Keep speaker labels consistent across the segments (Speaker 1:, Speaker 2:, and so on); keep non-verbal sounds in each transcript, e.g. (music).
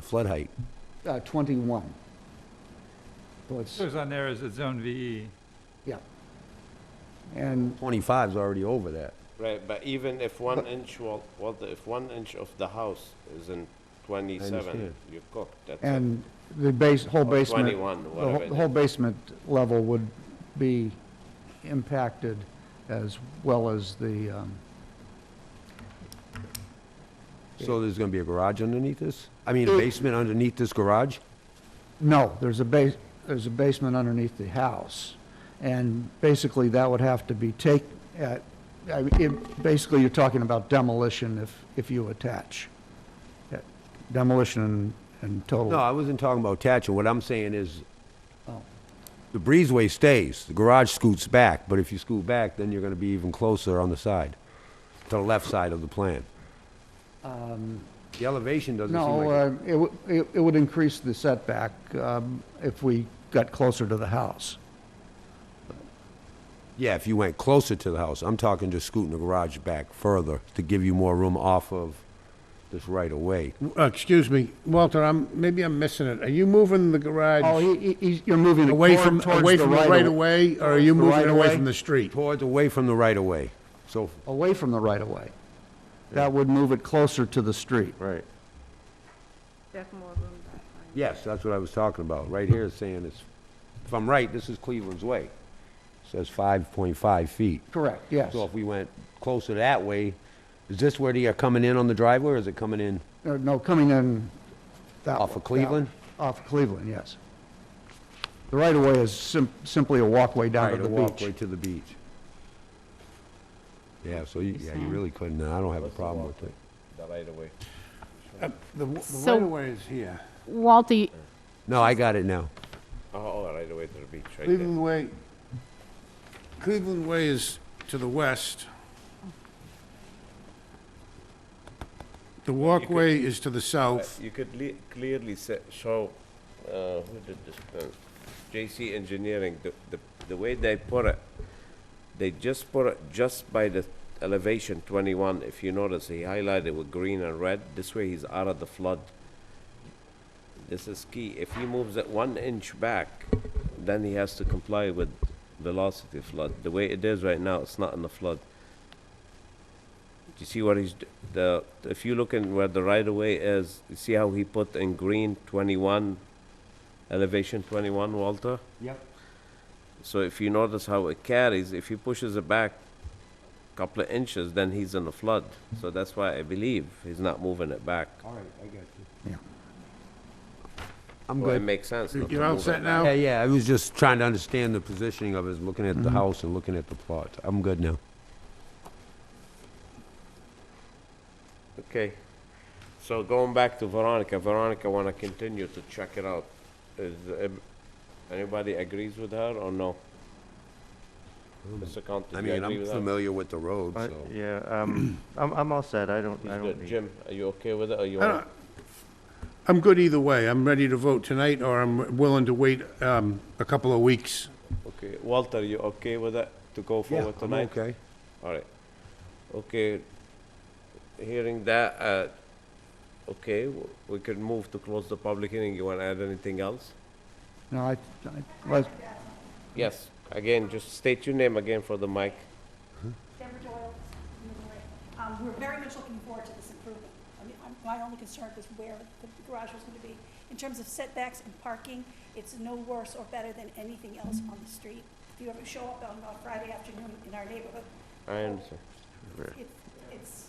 Speaker 1: flood height?
Speaker 2: uh, 21. So it's,
Speaker 3: Shows on there is it's E. zone VE.
Speaker 2: yeah. And
Speaker 1: 25 is already over that.
Speaker 4: Right, but even if one inch, wa- well, the- if one inch of the house is in twenty-seven,
Speaker 1: understand.
Speaker 4: you're cooked, that's it.
Speaker 2: And the base, whole
Speaker 4: Or
Speaker 2: basement.
Speaker 4: Oh, Twenty-one,
Speaker 2: the
Speaker 4: whatever
Speaker 2: whole-
Speaker 4: it
Speaker 2: The whole
Speaker 4: is.
Speaker 2: basement level would be impacted as well as the, um,
Speaker 1: So there's going to be a garage underneath this? I
Speaker 2: Mm.
Speaker 1: mean, a basement underneath this garage?
Speaker 2: no, there's a base, there's a basement underneath the house. And basically, that would have to be take, at- I mean, it- basically, you're talking about demolition if, if you attach. Yeah, Demolition and- and total.
Speaker 1: No, I wasn't talking about attaching. What I'm saying is,
Speaker 2: Oh.
Speaker 1: the breezeway stays, the garage scoots back, but if you scoot back, then you're going to be even closer on the side, to the left side of the plan. The elevation doesn't seem
Speaker 2: Um, No,
Speaker 1: like...
Speaker 2: uh, it would, it it would increase the setback um, if we got closer to the house.
Speaker 1: Yeah, if you went closer to the house. I'm talking just scooting the garage back further to give you more room off of this right-of-way.
Speaker 5: Uh, Excuse me, Walter, I'm, maybe I'm missing it. Are you moving the
Speaker 2: Oh,
Speaker 5: garage
Speaker 2: he, he- he's, you're moving the
Speaker 5: away
Speaker 2: cord
Speaker 5: from,
Speaker 2: towards the right.
Speaker 5: away from the right
Speaker 2: of-
Speaker 5: of way, or are you
Speaker 2: The
Speaker 5: moving it away
Speaker 2: right-of-way?
Speaker 5: from the street?
Speaker 1: Towards, away from the right-of-way. So,
Speaker 2: Away from the right of way. That would move it closer to the street.
Speaker 1: right.
Speaker 6: There's more room back.
Speaker 1: Yes, that's what I was talking about. Right here is saying it's, if I'm right, this is Cleveland's Way. Says 5.5 feet.
Speaker 2: Correct, yes.
Speaker 1: So if we went closer that way, is this where they are coming in on the driveway, or is it coming in?
Speaker 2: Uh, No, coming in that.
Speaker 1: Off of
Speaker 2: wa- that-
Speaker 1: Cleveland?
Speaker 2: Off Cleveland, yes. The right of way is sim- simply a walkway down to
Speaker 1: Right, a
Speaker 2: the
Speaker 1: walkway
Speaker 2: beach.
Speaker 1: to the beach. Yeah, so you, yeah, you really couldn't, and I don't have a problem with it.
Speaker 4: The right of way.
Speaker 5: Uh, The
Speaker 7: So-
Speaker 5: way is here.
Speaker 7: Walter, y-
Speaker 1: No, I got it now.
Speaker 4: Oh, oh, right away to the beach, right there.
Speaker 5: Cleveland Way, Cleveland Way is to the west. The walkway is to the
Speaker 4: Uh,
Speaker 5: south.
Speaker 4: You could le- clearly se- show, uh, who did this, uh, J.C. Engineering, the, the, the way they put it, they just put it just by the elevation twenty-one, if you notice, he highlighted with green and red, this way he's out of the flood. This is key, if he moves it one inch back, then he has to comply with velocity flood, the way it is right now, it's not in the flood. Do you see what he's, d- the, if you look in where the right-of-way is, you see how he put in green 21, elevation 21, Walter?
Speaker 1: Yep.
Speaker 4: So if you notice how it carries, if he pushes it back a couple of inches, then he's in a flood. So that's why I believe he's not moving it back.
Speaker 1: All right, I got you.
Speaker 2: Yeah.
Speaker 1: I'm
Speaker 4: Well, it
Speaker 1: good.
Speaker 4: makes sense not to
Speaker 5: You're all
Speaker 4: move
Speaker 5: set
Speaker 4: it.
Speaker 5: now?
Speaker 1: Yeah, yeah, I was just trying to understand the positioning of it, looking at the house and looking at the plot. I'm good now.
Speaker 4: Okay. So going back to Veronica, Veronica want to continue to check it out. Is, um, anybody agrees with her or no? Mr. Conti,
Speaker 1: Hmm. I
Speaker 4: do you
Speaker 1: mean,
Speaker 4: agree
Speaker 1: I'm
Speaker 4: with her?
Speaker 1: familiar with the road,
Speaker 8: I-
Speaker 1: so.
Speaker 8: Yeah, um, (clears throat) I'm, I'm all set, I don't,
Speaker 4: He's
Speaker 8: I don't
Speaker 4: good.
Speaker 8: need.
Speaker 4: Jim, are you okay with it, or you
Speaker 5: I
Speaker 4: want?
Speaker 5: don't- I'm good either way. I'm ready to vote tonight, or I'm willing to wait um, a couple of weeks.
Speaker 4: Okay, Walter, you okay with it, to go
Speaker 1: Yeah,
Speaker 4: forward
Speaker 1: I'm
Speaker 4: tonight?
Speaker 1: okay.
Speaker 4: All right. Okay, hearing that, uh, okay, w- we can move to close the public hearing. You want to add anything else?
Speaker 2: No, I, I, well,
Speaker 4: Yes, again, just state your name again for the mic.
Speaker 9: Deborah Doyle, Missouri. Um, We're very much looking forward to this improvement. I mean, I'm- my only concern was where the garage was going to be. In terms of setbacks and parking, it's no worse or better than anything else on the street. If you ever show up on a Friday afternoon in our neighborhood,
Speaker 4: I understand.
Speaker 9: it's, it's,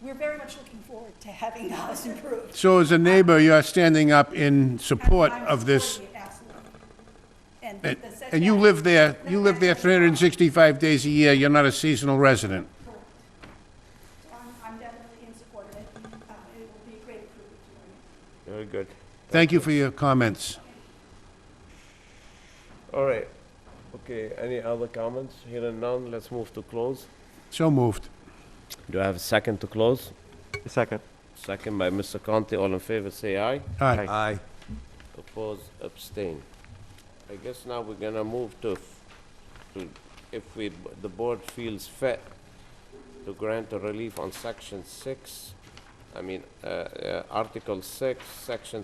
Speaker 9: we're very much looking forward to having the house improved.
Speaker 5: So as a neighbor, you're standing up in support
Speaker 9: I'm
Speaker 5: of this,
Speaker 9: supporting it, Absolutely. And the
Speaker 5: and
Speaker 9: the setback.
Speaker 5: and you live there, you live there 365 days a year, you're not a seasonal resident.
Speaker 9: I'm I'm definitely in support of it. Um, It will be a great improvement to our
Speaker 4: Very good.
Speaker 5: Thank you for your comments.
Speaker 4: All right. Okay, any other comments? Hearing none, let's move to close.
Speaker 5: So moved.
Speaker 4: Do I have a second to close?
Speaker 8: Second.
Speaker 4: Second by Mr. Conti. All in favor, say aye.
Speaker 5: All right,
Speaker 8: Aye.
Speaker 1: Aye.
Speaker 4: Oppose, abstain. I guess now we're gonna move to, f- to, if we, the board feels fit to grant a relief on section six I mean, uh, uh, Article 6, Section